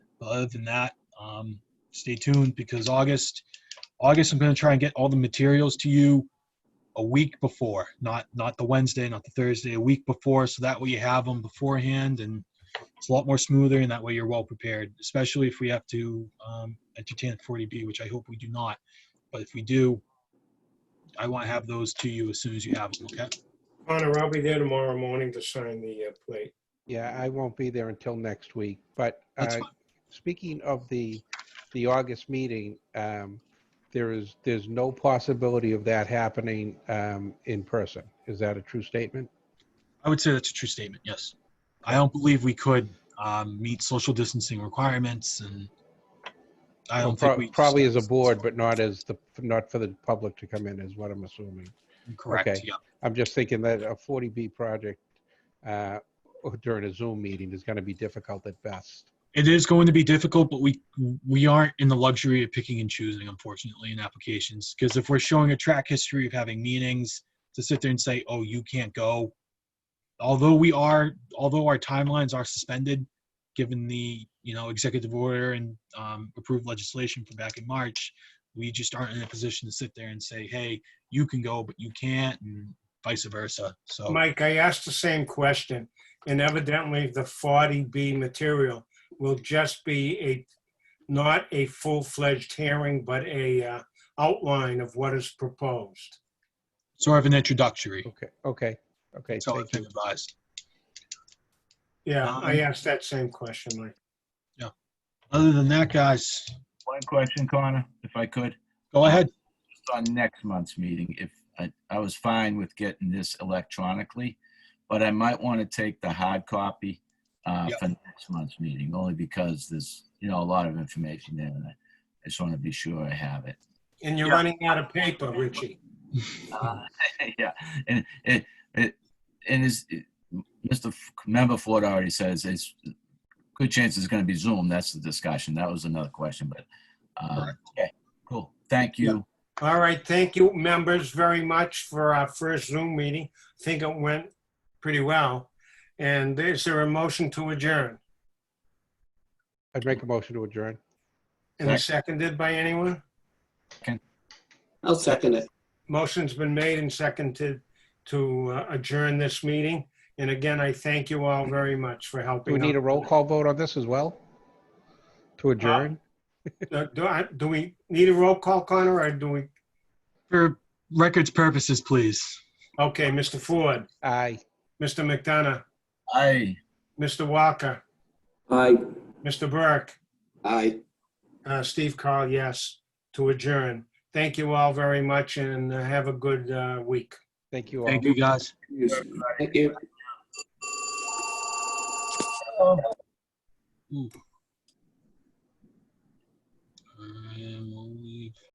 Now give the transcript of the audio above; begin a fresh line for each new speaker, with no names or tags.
But other than that, um, stay tuned because August, August, I'm going to try and get all the materials to you a week before, not, not the Wednesday, not the Thursday, a week before. So that way you have them beforehand and it's a lot more smoother and that way you're well prepared, especially if we have to, um, entertain a 40B, which I hope we do not. But if we do, I want to have those to you as soon as you have them, okay?
Connor, I'll be there tomorrow morning to sign the uh, plate.
Yeah, I won't be there until next week, but
That's
uh,
fine.
speaking of the, the August meeting, um, there is, there's no possibility of that happening um, in person. Is that a true statement?
I would say that's a true statement, yes. I don't believe we could um, meet social distancing requirements and I don't think
Prob-
we.
Probably as a board, but not as the, not for the public to come in, is what I'm assuming.
Correct,
okay.
yeah.
I'm just thinking that a 40B project uh, during a Zoom meeting is going to be difficult at best.
It is going to be difficult, but we, we aren't in the luxury of picking and choosing, unfortunately, in applications. Because if we're showing a track history of having meetings, to sit there and say, oh, you can't go. Although we are, although our timelines are suspended, given the, you know, executive order and um, approved legislation from back in March, we just aren't in a position to sit there and say, hey, you can go, but you can't, and vice versa. So,
Mike, I asked the same question, and evidently the 40B material will just be a, not a full-fledged hearing, but a uh, outline of what is proposed.
sort of an introductory,
Okay, okay, okay.
so
thank
it's been advised.
Yeah, I
Um,
asked that same question, Mike.
Other than that, guys,
One question, Connor, if I could,
go ahead.
just on next month's meeting, if, I, I was fine with getting this electronically, but I might want to take the hard copy uh,
Yeah.
for next month's meeting, only because there's, you know, a lot of information there, and I I just want to be sure I have it.
And you're
Yeah.
running out of paper, Richie.
Yeah, and it, it, and is, Mr. F- Member Ford already says it's, good chance it's going to be Zoom, that's the discussion, that was another question, but, uh,
Correct.
okay, cool, thank
Yeah.
you.
All right, thank you, members, very much for our first Zoom meeting. I think it went pretty well. And is there a motion to adjourn?
you. I'd make a motion to adjourn.
And seconded by anyone?
I'll second it.
Motion's been made and seconded to uh, adjourn this meeting. And again, I thank you all very much for
Do
helping.
we need a
out.
roll call vote on this as well? To adjourn?
Uh, Do I, do we need a roll call, Connor, or do we?
For records purposes, please.
Okay, Mr. Ford,
Aye.
Mr. McDonough,
Aye.
Mr. Walker,
Aye.
Mr. Burke,
Aye.
uh, Steve Carl, yes, to adjourn. Thank you all very much and uh, have a good uh, week.
Thank you all.
Thank you, guys.
Thank you.
Ooh.